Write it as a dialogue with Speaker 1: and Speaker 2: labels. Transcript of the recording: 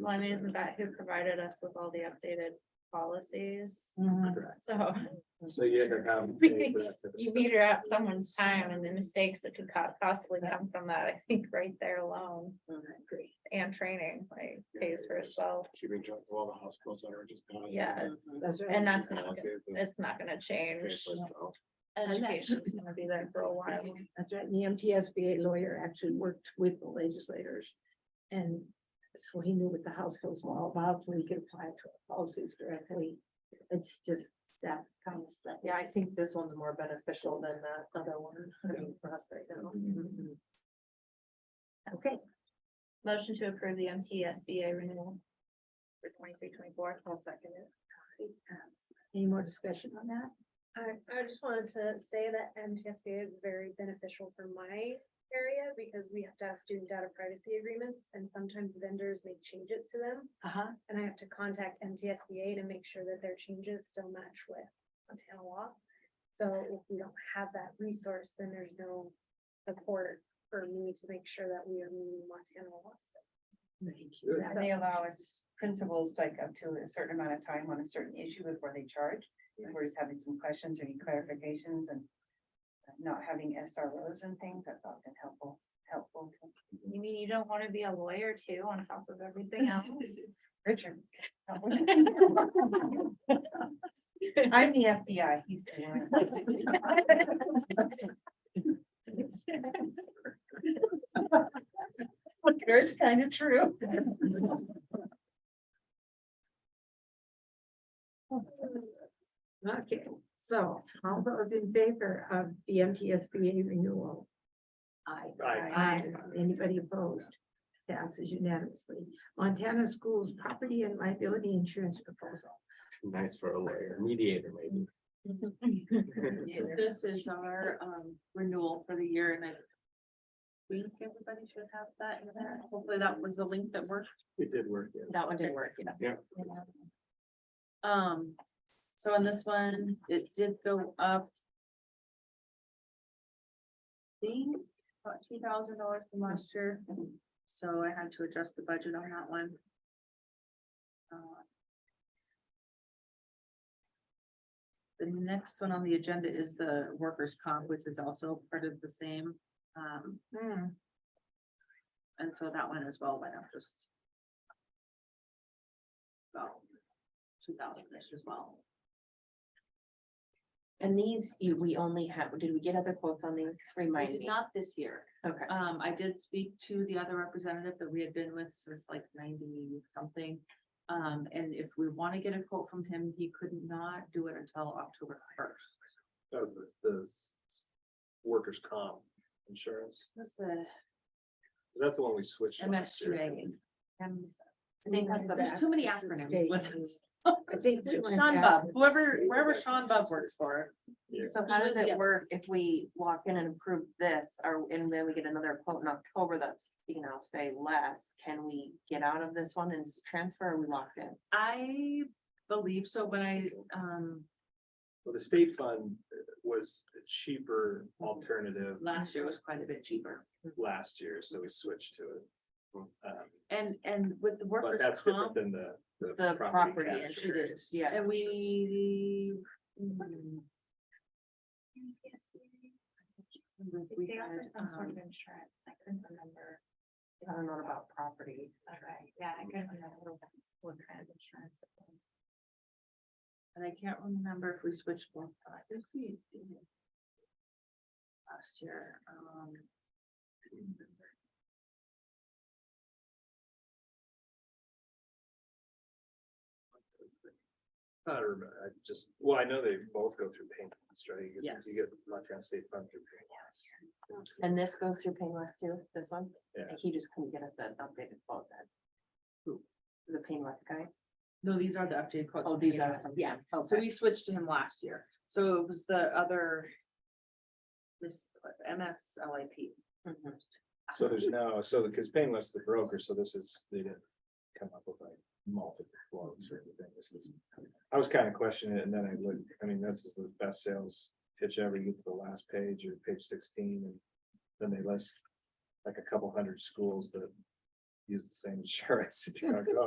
Speaker 1: Well, I mean, isn't that who provided us with all the updated policies?
Speaker 2: Mm-hmm.
Speaker 3: Correct.
Speaker 1: So
Speaker 3: So you had to have.
Speaker 1: you meter out someone's time and the mistakes that could co- possibly come from that, I think right there alone.
Speaker 4: Mm,
Speaker 1: And training like pays for itself.
Speaker 3: Keeping track of all the hospitals that are just. gone.
Speaker 1: Yeah,
Speaker 2: Mm-hmm. That's right.
Speaker 4: uh,
Speaker 1: and that's
Speaker 3: Yeah,
Speaker 1: not,
Speaker 3: I'll
Speaker 1: gonna-
Speaker 3: say the-
Speaker 1: it's not gonna change.
Speaker 3: Okay, so-
Speaker 2: And that-
Speaker 1: Education's gonna be there for a while.
Speaker 2: That's right. And The MTSBA lawyer actually worked with the legislators. And so he knew what the House bills were all about, so he could apply to our policies directly. It's just that kind of stuff.
Speaker 4: Yeah, I think this one's more beneficial than that other one, I mean, for us right now.
Speaker 2: Mm-hmm. Okay,
Speaker 1: Motion to approve the MTSBA renewal. For twenty-three, twenty-four. I'll second it.
Speaker 2: Uh, any more discussion on that?
Speaker 5: I, I just wanted to say that MTSBA is very beneficial for my area because we have to have student data privacy agreements and sometimes vendors make changes to them.
Speaker 2: Uh-huh.
Speaker 5: And I have to contact MTSBA to make sure that their changes still match with Montana law. So if we don't have that resource, then there's no support for me to make sure that we are meeting Montana law.
Speaker 2: Thank you.
Speaker 6: And they allow us principals like up to a certain amount of time on a certain issue before they charge. If We're just having some questions or any clarifications and not having SROs and things, that's often helpful, helpful to
Speaker 1: You mean you don't wanna be a lawyer too on top of everything else?
Speaker 6: Richard. I'm the FBI, he's the one. Look, it's kind of true.
Speaker 2: Okay, so all those in favor of the MTSBA renewal? Aye.
Speaker 3: Aye.
Speaker 2: Aye. Anybody opposed? Passes unanimously. Montana Schools Property and Liability Insurance Proposal.
Speaker 3: Nice for a lawyer, mediator maybe.
Speaker 7: This is our um renewal for the year and I think everybody should have that in there. Hopefully that was the link that worked.
Speaker 3: It did work, yeah.
Speaker 4: That one did work, yes.
Speaker 3: Yeah.
Speaker 7: Um, so on this one, it did go up. I Think about two thousand dollars from last year, so I had to adjust the budget on that one. Uh, The next one on the agenda is the workers' comp, which is also part of the same, um. And so that one as well went up just. About two thousand-ish as well.
Speaker 4: And these, you, we only have, did we get other quotes on these?
Speaker 7: I
Speaker 4: Remind
Speaker 7: did
Speaker 4: me.
Speaker 7: not this year.
Speaker 4: Okay.
Speaker 7: Um, I did speak to the other representative that we had been with since like ninety something. Um, and if we want to get a quote from him, he could not do it until October first.
Speaker 3: That was this, this workers' comp insurance,
Speaker 7: That's the
Speaker 3: 'Cause that's the one we switched. last year.
Speaker 7: MSGA. Um,
Speaker 2: I think that's the
Speaker 7: There's too many
Speaker 2: best.
Speaker 7: acronyms with this.
Speaker 2: I think we went
Speaker 7: Sean
Speaker 2: back
Speaker 7: Bub,
Speaker 2: and
Speaker 7: whoever,
Speaker 3: see
Speaker 7: wherever
Speaker 3: what
Speaker 7: Sean Bub works for.
Speaker 3: Yeah.
Speaker 6: So how does
Speaker 7: Yeah.
Speaker 6: it work if we walk in and approve this, or, and then we get another quote in October that's, you know, say less, can we get out of this one and s- transfer, or we locked in?
Speaker 7: I believe so, but I, um,
Speaker 3: Well, the state fund uh, was a cheaper alternative
Speaker 7: last year was quite a bit cheaper.
Speaker 3: last year, so we switched to it. Um,
Speaker 7: And, and with the
Speaker 3: But
Speaker 7: workers'
Speaker 3: that's different
Speaker 7: comp,
Speaker 3: than the.
Speaker 6: The property
Speaker 3: damage
Speaker 6: insurance, yeah.
Speaker 7: and we. mm, we
Speaker 1: They offer
Speaker 7: had,
Speaker 1: some sort of
Speaker 7: um,
Speaker 1: insurance, I couldn't remember.
Speaker 6: I don't know about property.
Speaker 1: Alright, yeah, I couldn't remember what kind of insurance. it was.
Speaker 7: And I can't remember if we switched one, but I think we did. Last year, um.
Speaker 3: I don't remember, I just, well, I know they both go through pain, points, right? You get-
Speaker 7: Yes.
Speaker 3: You get Montana State Fund through pain. points.
Speaker 6: And this goes through Painless too, this one?
Speaker 3: Yeah.
Speaker 6: He just couldn't get us an updated quote then.
Speaker 3: Who?
Speaker 6: The Painless guy?
Speaker 7: No, these are the updated quotes.
Speaker 6: Oh,
Speaker 7: from
Speaker 6: these are,
Speaker 7: PRS.
Speaker 6: yeah,
Speaker 7: So
Speaker 6: okay.
Speaker 7: we switched to him last year, so it was the other. This MSLIP.
Speaker 6: Mhm.
Speaker 3: So there's no, so because Painless the broker, so this is, they didn't come up with like multiple quotes or anything. This is. I was kind of questioning it and then I looked, I mean, this is the best sales pitch ever. You get to the last page or page sixteen and then they list like a couple hundred schools that use the same insurance. You're like, "Oh,